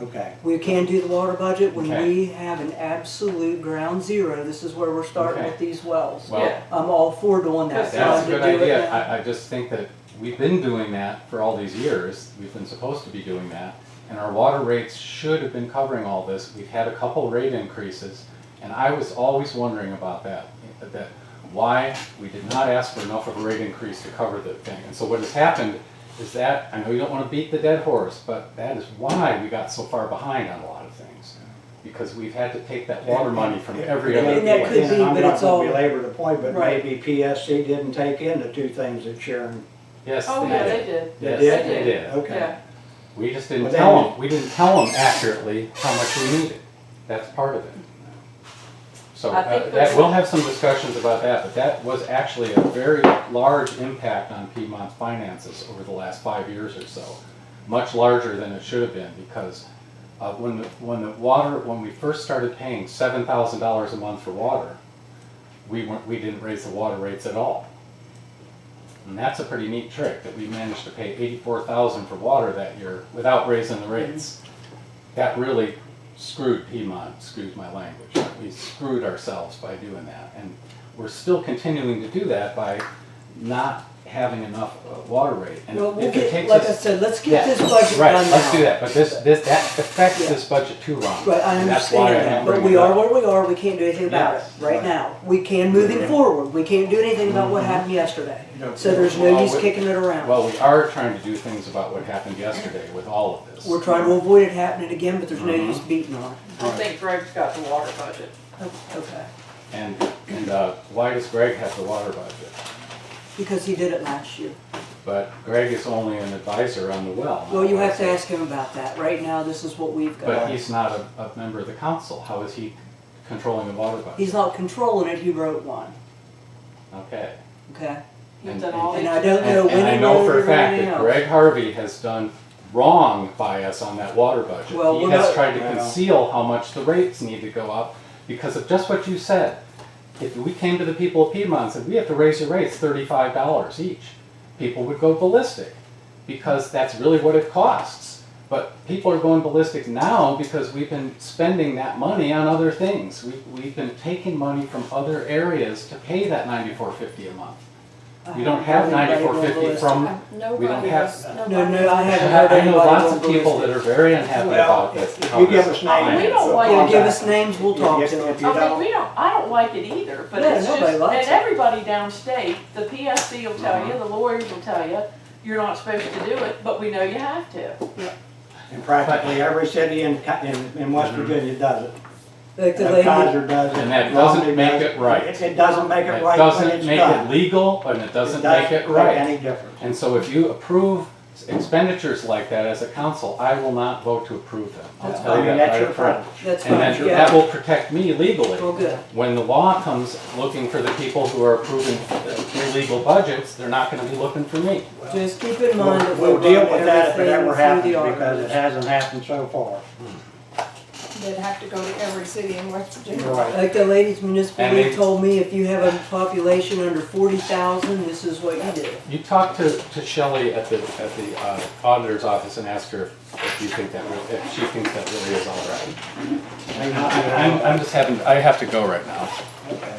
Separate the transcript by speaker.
Speaker 1: Okay,
Speaker 2: We can do the water budget when
Speaker 1: Okay.
Speaker 2: we have an absolute ground zero. This is where we're starting
Speaker 1: Okay.
Speaker 2: with these wells.
Speaker 1: well,
Speaker 3: Yeah.
Speaker 2: I'm all for doing that.
Speaker 3: That's
Speaker 2: So I'm
Speaker 1: that's a
Speaker 2: gonna
Speaker 1: good
Speaker 2: do it
Speaker 1: idea.
Speaker 2: now.
Speaker 1: I, I just think that we've been doing that for all these years. We've been supposed to be doing that. And our water rates should have been covering all this. We've had a couple rate increases. And I was always wondering about that, that why we did not ask for enough of a rate increase to cover the thing. And so what has happened is that, I know you don't want to beat the dead horse, but that is why we got so far behind on a lot of things. Because we've had to take that water money from every other
Speaker 2: And that
Speaker 1: place.
Speaker 2: could be, but it's all-
Speaker 4: I'm not gonna belabor the point, but
Speaker 2: Right.
Speaker 4: maybe PSC didn't take in the two things that Sharon,
Speaker 1: Yes,
Speaker 3: Oh,
Speaker 1: they
Speaker 3: yeah,
Speaker 1: did.
Speaker 3: they did.
Speaker 4: They
Speaker 1: Yes,
Speaker 4: did?
Speaker 1: they did.
Speaker 4: okay.
Speaker 3: Yeah,
Speaker 1: We just didn't
Speaker 4: But they
Speaker 1: tell
Speaker 4: knew.
Speaker 1: them, we didn't tell them accurately how much we needed. That's part of it. So
Speaker 3: I
Speaker 1: uh,
Speaker 3: think
Speaker 1: that,
Speaker 3: there's-
Speaker 1: we'll have some discussions about that, but that was actually a very large impact on Piedmont's finances over the last five years or so. Much larger than it should have been because uh, when, the- when the water, when we first started paying seven thousand dollars a month for water, we weren't, we didn't raise the water rates at all. And that's a pretty neat trick, that we managed to pay eighty-four thousand for water that year without raising the
Speaker 2: Mm-hmm.
Speaker 1: rates. That really screwed Piedmont, screwed my language. We screwed ourselves by doing that. And we're still continuing to do that by not having enough uh, water rate. And
Speaker 2: Well, we'll
Speaker 1: if it
Speaker 2: get,
Speaker 1: takes
Speaker 2: like I
Speaker 1: us-
Speaker 2: said, let's
Speaker 1: Yeah,
Speaker 2: get this budget
Speaker 1: Right,
Speaker 2: done now.
Speaker 1: let's do that, but this, this, that affects
Speaker 2: Yeah.
Speaker 1: this budget too, Ron.
Speaker 2: Right, I
Speaker 1: And that's why
Speaker 2: understand that,
Speaker 1: I'm
Speaker 2: but
Speaker 1: bringing
Speaker 2: we
Speaker 1: it
Speaker 2: are
Speaker 1: up.
Speaker 2: where we are, we can't do anything about it
Speaker 1: Yes,
Speaker 2: right
Speaker 1: right. Mm-hmm.
Speaker 2: now. We can moving forward, we can't do anything about what happened yesterday.
Speaker 4: No.
Speaker 2: So there's no
Speaker 1: Well,
Speaker 2: use
Speaker 1: we-
Speaker 2: kicking it around.
Speaker 1: Well, we are trying to do things about what happened yesterday with all of this.
Speaker 2: We're trying to avoid it happening again, but there's no
Speaker 1: mm-hmm.
Speaker 2: use beating on it.
Speaker 3: I think Greg's got the water budget.
Speaker 2: O- Okay,
Speaker 1: And, and uh, why does Greg have the water budget?
Speaker 2: because he did it last year.
Speaker 1: But Greg is only an advisor on the well. not
Speaker 2: Well, you
Speaker 1: a
Speaker 2: have to
Speaker 1: license.
Speaker 2: ask him about that. Right now, this is what we've
Speaker 1: But
Speaker 2: got.
Speaker 1: he's not a, a member of the council. How is he controlling the water budget?
Speaker 2: He's not controlling it, he wrote one,
Speaker 1: Okay.
Speaker 2: okay?
Speaker 3: He's
Speaker 1: And-
Speaker 3: done all
Speaker 2: And
Speaker 3: these.
Speaker 2: I don't know
Speaker 1: And
Speaker 2: when
Speaker 1: and I
Speaker 2: he
Speaker 1: know
Speaker 2: wrote
Speaker 1: for
Speaker 2: it
Speaker 1: a
Speaker 2: or
Speaker 1: fact
Speaker 2: anything
Speaker 1: that
Speaker 2: else.
Speaker 1: Greg Harvey has done wrong by us on that water budget.
Speaker 2: Well,
Speaker 1: He
Speaker 2: we're
Speaker 1: has
Speaker 2: not-
Speaker 1: tried to
Speaker 4: Well.
Speaker 1: conceal how much the rates need to go up because of just what you said. If we came to the people of Piedmont and said, we have to raise your rates thirty-five dollars each, people would go ballistic because that's really what it costs. But people are going ballistic now because we've been spending that money on other things. We've, we've been taking money from other areas to pay that ninety-four fifty a month.
Speaker 2: I
Speaker 1: We
Speaker 2: haven't
Speaker 1: don't have
Speaker 2: heard anybody
Speaker 1: ninety-four
Speaker 2: go
Speaker 1: fifty
Speaker 2: ballistic.
Speaker 1: from We don't
Speaker 5: Nobody
Speaker 1: have-
Speaker 5: has,
Speaker 1: No,
Speaker 5: nobody.
Speaker 2: No, no, I
Speaker 1: I
Speaker 2: haven't heard
Speaker 1: I know
Speaker 2: anybody
Speaker 1: lots
Speaker 2: go
Speaker 1: of people that
Speaker 2: ballistic.
Speaker 1: are very unhappy
Speaker 4: Well,
Speaker 1: about this.
Speaker 4: if
Speaker 1: how
Speaker 4: you give
Speaker 1: this
Speaker 4: us names.
Speaker 1: finance-
Speaker 3: We don't
Speaker 4: of
Speaker 3: want-
Speaker 2: Yeah,
Speaker 4: contacts.
Speaker 2: give us names, we'll talk
Speaker 4: If-
Speaker 2: to
Speaker 4: if
Speaker 2: them.
Speaker 4: you
Speaker 3: I mean,
Speaker 4: don't-
Speaker 3: we don't, I don't like it either, but
Speaker 2: Yeah,
Speaker 3: it's just,
Speaker 2: nobody
Speaker 3: and
Speaker 2: likes it.
Speaker 3: everybody downstate, the PSC will tell
Speaker 1: Mhm.
Speaker 3: you, the lawyers will tell you, you're not supposed to do it, but we know you have to.
Speaker 4: And practically every city in, co- in, in West
Speaker 1: Mhm.
Speaker 4: Virginia does it.
Speaker 2: Like the lady-
Speaker 4: Kaiser does it.
Speaker 1: And that doesn't
Speaker 4: Romney
Speaker 1: make
Speaker 4: does
Speaker 1: it right.
Speaker 4: It it doesn't make it
Speaker 1: It
Speaker 4: right when it's
Speaker 1: doesn't make it
Speaker 4: done.
Speaker 1: legal and it doesn't make it right.
Speaker 4: Any difference.
Speaker 1: And so if you approve expenditures like that as a council, I will not vote to approve them. I'll
Speaker 2: That's
Speaker 1: tell
Speaker 4: I
Speaker 1: you that
Speaker 4: mean, that's
Speaker 1: right
Speaker 4: your
Speaker 1: up front.
Speaker 4: friend.
Speaker 2: That's
Speaker 1: And
Speaker 2: fine,
Speaker 1: then
Speaker 2: yeah.
Speaker 1: that will protect me legally.
Speaker 2: Well, good.
Speaker 1: When the law comes looking for the people who are approving illegal budgets, they're not gonna be looking for me.
Speaker 2: Just keep in mind that
Speaker 4: We'll
Speaker 2: we
Speaker 4: we'll
Speaker 2: run
Speaker 4: deal with that if it
Speaker 2: everything
Speaker 4: ever
Speaker 2: through
Speaker 4: happens,
Speaker 2: the
Speaker 4: because it
Speaker 2: auditors.
Speaker 4: hasn't happened so far.
Speaker 5: they'd have to go to every city in West Virginia.
Speaker 4: Right.
Speaker 2: Like the ladies municipal
Speaker 1: And
Speaker 2: league
Speaker 1: they-
Speaker 2: told me, if you have a population under forty thousand, this is what you do.
Speaker 1: You talked to, to Shelley at the, at the uh, auditor's office and asked her if you think that, real- if she thinks that really is all right.
Speaker 4: May not be
Speaker 1: I'm,
Speaker 4: right.
Speaker 1: I'm just having, I have to go right now.
Speaker 4: Okay.